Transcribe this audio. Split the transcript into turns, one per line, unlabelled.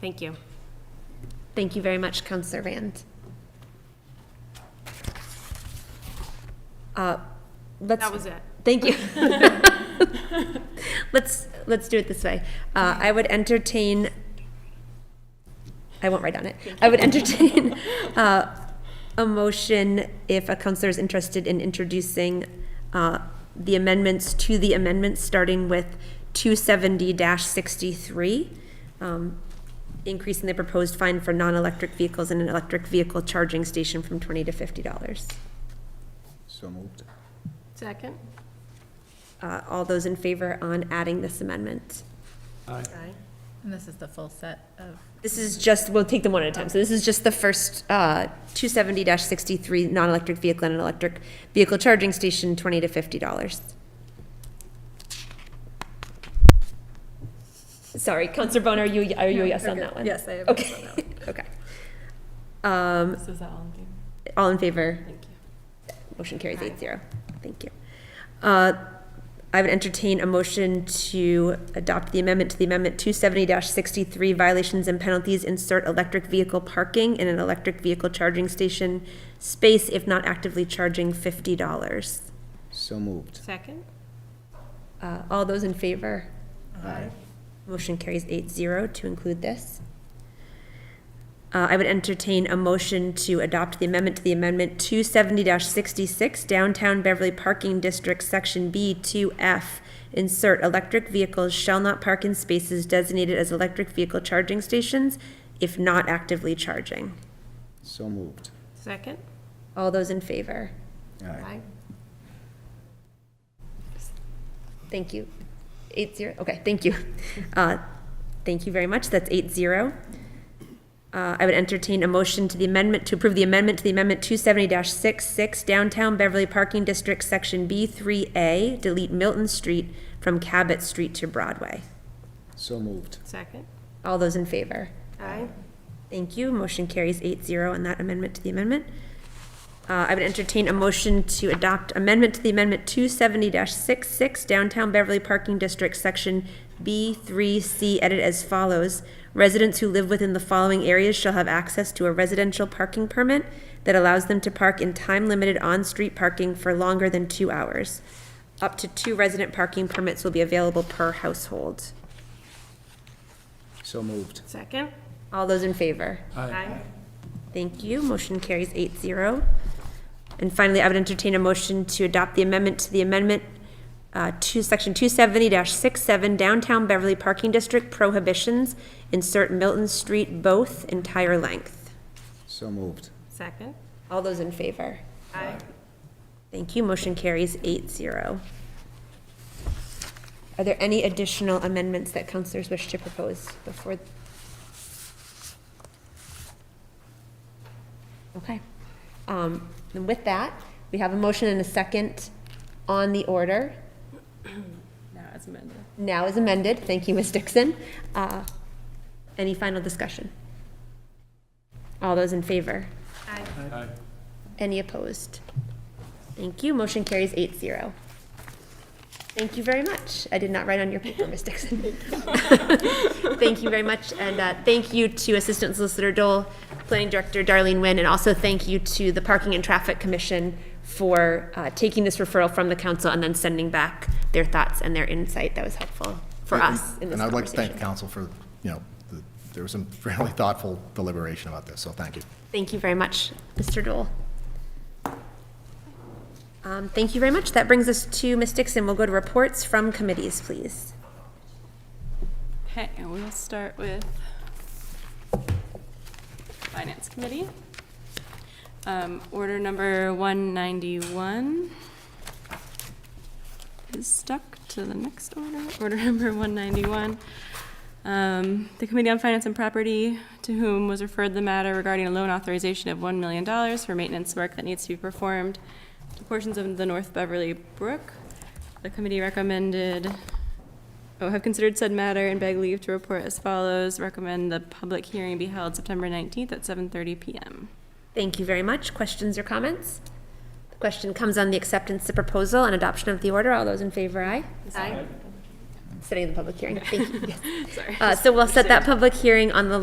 Thank you. Thank you very much, Counselor Rand. Uh, Let's.
That was it.
Thank you. Let's, let's do it this way. Uh, I would entertain, I won't write on it. I would entertain, uh, a motion if a counselor is interested in introducing, uh, the amendments to the amendments, starting with two seventy sixty-three. Um, increasing the proposed fine for non-electric vehicles in an electric vehicle charging station from twenty to fifty dollars.
So moved.
Second?
Uh, all those in favor on adding this amendment?
Aye.
And this is the full set of,
This is just, we'll take them one at a time. So this is just the first, uh, two seventy sixty-three, non-electric vehicle and an electric vehicle charging station, twenty to fifty dollars. Sorry, Counselor Bone, are you, are you a yes on that one?
yes, I am.
Okay, okay. Um,
This is all in favor.
all in favor?
Thank you.
Motion carries eight zero. Thank you. Uh, I would entertain a motion to adopt the amendment to the amendment two seventy sixty-three violations and penalties, insert electric vehicle parking in an electric vehicle charging station space if not actively charging fifty dollars.
So moved.
Second?
Uh, all those in favor?
Aye.
Motion carries eight zero to include this. Uh, I would entertain a motion to adopt the amendment to the amendment two seventy sixty-six Downtown Beverly Parking District, Section B two F. Insert electric vehicles shall not park in spaces designated as electric vehicle charging stations if not actively charging.
So moved.
Second?
All those in favor?
Aye.
Thank you. Eight zero, okay, thank you. Uh, Thank you very much, that's eight zero. Uh, I would entertain a motion to the amendment, to approve the amendment to the amendment two seventy 66 Downtown Beverly Parking District, Section B three A, delete Milton Street from Cabot Street to Broadway.
So moved.
Second?
All those in favor?
Aye.
Thank you. Motion carries 8-0 on that amendment to the amendment. Uh, I would entertain a motion to adopt amendment to the amendment two seventy 66 downtown Beverly Parking District, section B three C, edit as follows. Residents who live within the following areas shall have access to a residential parking permit that allows them to park in time-limited on-street parking for longer than two hours. Up to two resident parking permits will be available per household.
So moved.
Second?
All those in favor?
Aye.
Thank you. Motion carries eight zero. And finally, I would entertain a motion to adopt the amendment to the amendment uh, to section two seventy 67 downtown Beverly Parking District prohibitions, insert Milton Street both entire length.
So moved.
Second?
All those in favor?
Aye.
Thank you. Motion carries eight zero. Are there any additional amendments that counselors wish to propose before? Okay. Um, and with that, we have a motion and a second on the order. Now as amended. Now as amended. Thank you, Ms. Dixon. Uh, any final discussion? All those in favor?
Aye.
Any opposed? Thank you. Motion carries eight zero. Thank you very much. I did not write on your paper, Ms. Dixon. Thank you very much, and uh, thank you to Assistant Solicitor Dole, Planning Director Darlene Nguyen, and also thank you to the Parking and Traffic Commission for uh, taking this referral from the council and then sending back their thoughts and their insight. That was helpful for
Yeah, and-
us in this
And I'd like to thank
conversation.
the council for, you know, the- there was some fairly thoughtful deliberation about this, so thank you.
Thank you very much, Mr. Dole. Um, Thank you very much. That brings us to Ms. Dixon. We'll go to reports from committees, please.
Okay, and we'll start with Finance Committee. Um, Order number 191 is stuck to the next order, order number 191. Um, The Committee on Finance and Property, to whom was referred the matter regarding a loan authorization of $1 million for maintenance work that needs to be performed to portions of the North Beverly Brook. The committee recommended Oh, have considered said matter and beg leave to report as follows. Recommend the public hearing be held September 19th at 7:30 PM.
Thank you very much. Questions or comments? The question comes on the acceptance of proposal and adoption of the order. All those in favor, aye?
Aye.
Setting the public hearing. Thank you. Yes.
Sorry.
Uh, So we'll set that public hearing on the